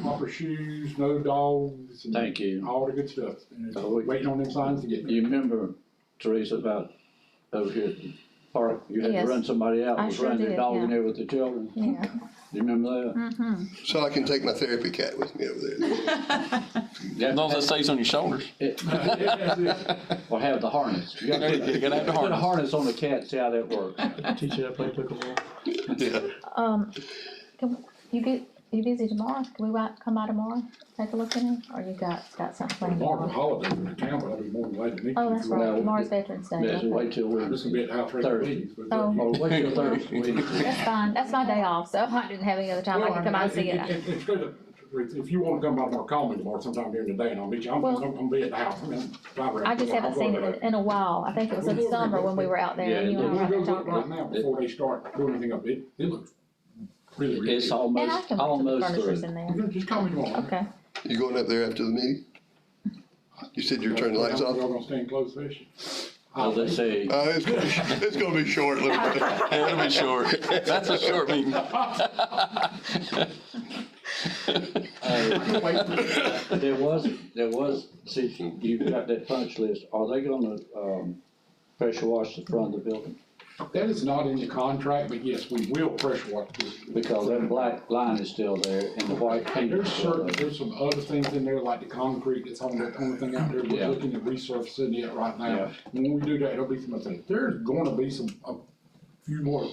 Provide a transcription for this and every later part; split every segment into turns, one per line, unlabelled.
proper shoes, no dogs, and
Thank you.
all the good stuff. And it's
Oh, wait.
waiting on them signs to get there.
You remember Teresa about over here at the park, you had to
Yes.
run somebody out,
I
was
sure
running their
did,
dog
yeah.
in there with the children.
Yeah.
You remember
Mm-hmm.
So I can take my therapy cat with me over there.
that?
As long as it stays on your shoulders.
Or have the harness. You gotta put-
You gotta have the
Put a
harness.
harness on the cat, see how that works.
Teach you how to play pickleball.
Yeah.
Um, can, you get, you busy tomorrow? Can we wa- come by tomorrow, take a look at it, or you got, got something planned
Margaret
tomorrow?
Holiday in the town, but I'll be more than glad to meet you.
Oh, that's right,
Well,
tomorrow's Veterans Day.
Just
okay.
wait till
I'm just gonna
Wednesday.
be at the house regular
Thursday.
meetings, but. uh,
Oh.
Or wait till Thursday.
That's fine, that's my day off, so I didn't have any other time, I can come out and see
Well, I mean,
it.
it- it- it's good if- If you wanna come by tomorrow, call me tomorrow sometime during the day and I'll meet you. I'm, I'm
Well-
gonna be at the house. I'm gonna drive around.
I just haven't
I'm going
seen
to-
it in a while, I think it was in
We'll-
summer when we were out there, and
Yeah,
you
We'll
and I
go
were
look right
talking.
now before they start doing anything up. It, it looks really, really
It's
good.
And I
almost,
can put the
almost
furnitures
through.
in there,
You know, Just call me tomorrow.
okay,
You going up there after the meeting? You said you were turning the lights
We're
off?
gonna stay in closed session.
As they say,
Uh, it's, gonna be- it's gonna be short, let me tell you.
It'll be short. That's a short meeting.
Oh, There was, there was, see, you've got that punch list, are they gonna, um, pressure wash the front of the building?
That is not in the contract, but yes, we will pressure wash this.
Because that black line is still there and the white paint is
There's
still
certain,
there.
there's some other things in there, like the concrete, that's on the only thing out there,
Yeah.
we're looking at resurfacing it right now.
Yeah.
When we do that, it'll be some other things, there's gonna be some, a few more,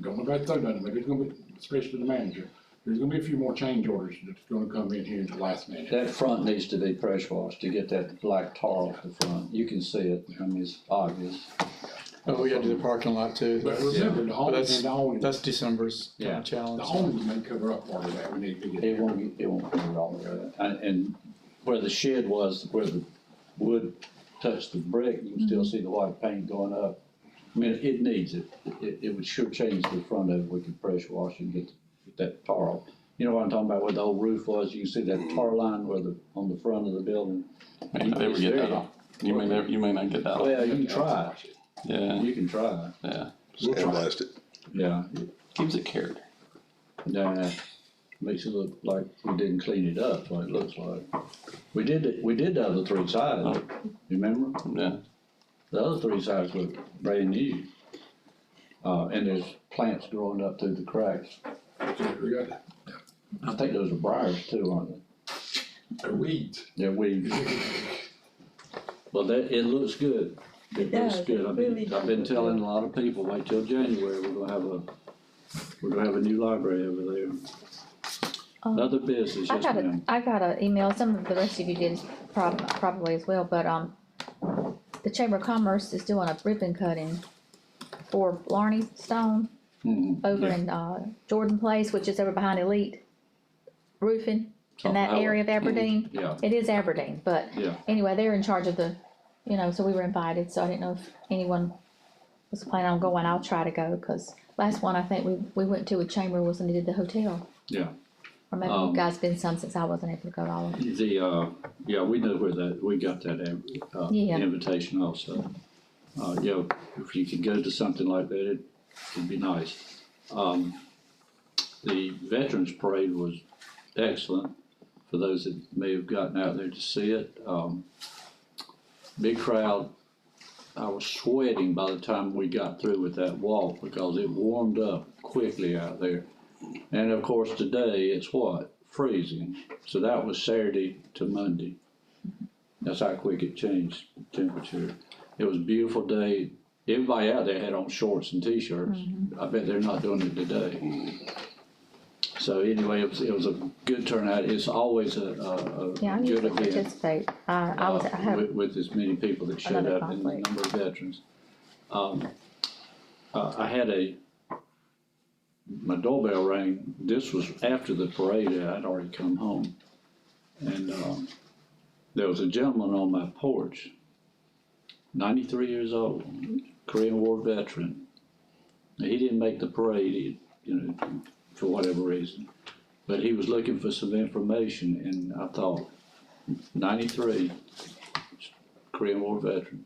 gonna go through that, maybe it's gonna be, especially the manager. There's gonna be a few more change orders that's gonna come in here at the last minute.
That front needs to be pressure washed to get that black tar off the front. You can see it, I mean, it's obvious.
Oh, we gotta do the parking lot too.
But remember, the awning,
that's-
the awning, the
That's December's
Yeah.
kinda challenge.
awning may cover up part of that, we need to get.
It won't, it won't cover all of that. And, and where the shed was, where the wood touched the brick, you can
Mm-hmm.
still see the white paint going up. I mean, it needs it. It, it would sure change the front of it. We could pressure wash and get that tar off. You know what I'm talking about, where the old roof was? You can see that tar line where the, on the front of the building.
May not ever get that off. You may never, you may not get that off.
Well, Oh, you can try.
Yeah,
You can try.
yeah.
Sandblast it.
Yeah.
Gives it character.
Nah, makes it look like we didn't clean it up, what it looks like. We did, it- we did the other three sides, remember?
Yeah.
The other three sides look brand new. Uh, and there's plants growing up through the cracks.
We got
I think those are briars too, aren't they?
the weeds.
They're weeds. Well, that, it looks good. It looks
does, it
good. I've
really
been, I've been
does.
telling a lot of people, wait till January, we're gonna have a, we're gonna have a new library over there.
Um,
Another business,
I
yes
got a,
ma'am.
I got an email, some of the rest of you did probably, probably as well, but, um, the Chamber of Commerce is doing a ribbon cutting for Larney Stone
Mhm.
over in, uh, Jordan Place, which is over behind Elite Roofing, in that
Oh,
area of Aberdeen.
Yeah,
It is Aberdeen, but
yeah.
anyway, they're in charge of the, you know, so we were invited, so I didn't know if anyone was planning on going. I'll try to go, cause last one I think we, we went to with Chamber was when they did the hotel.
Yeah.
Or maybe
Um,
you guys been some since I wasn't able to go to all of them.
The, uh, yeah, we know where that, we got that, uh,
Yeah.
invitation also. Uh, yeah, if you could go to something like that, it would be nice. Um, the Veterans Parade was excellent for those that may have gotten out there to see it. Um, big crowd. I was sweating by the time we got through with that walk because it warmed up quickly out there. And of course, today it's what? Freezing. So that was Saturday to Monday. That's how quick it changed the temperature. It was a beautiful day. Everybody out there had on shorts and t-shirts.
Mm-hmm.
I bet they're not doing it today. So anyway, it was, it was a good turnout. It's always a, a, a
Yeah, I
good
usually
event
participate. I, I was, I
uh,
have,
With, with as many people that showed
another
up and the
conflict.
number of veterans. Um, uh, I had a, my doorbell rang, this was after the parade, and I'd already come home. And, um, there was a gentleman on my porch, ninety-three years old, Korean War veteran. He didn't make the parade, he- you know, for whatever reason, but he was looking for some information, and I thought, ninety-three, Korean War veteran.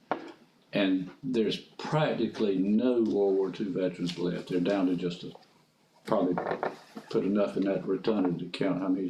And there's practically no World War II veterans left. They're down to just a, probably put enough in that rotunda to count how many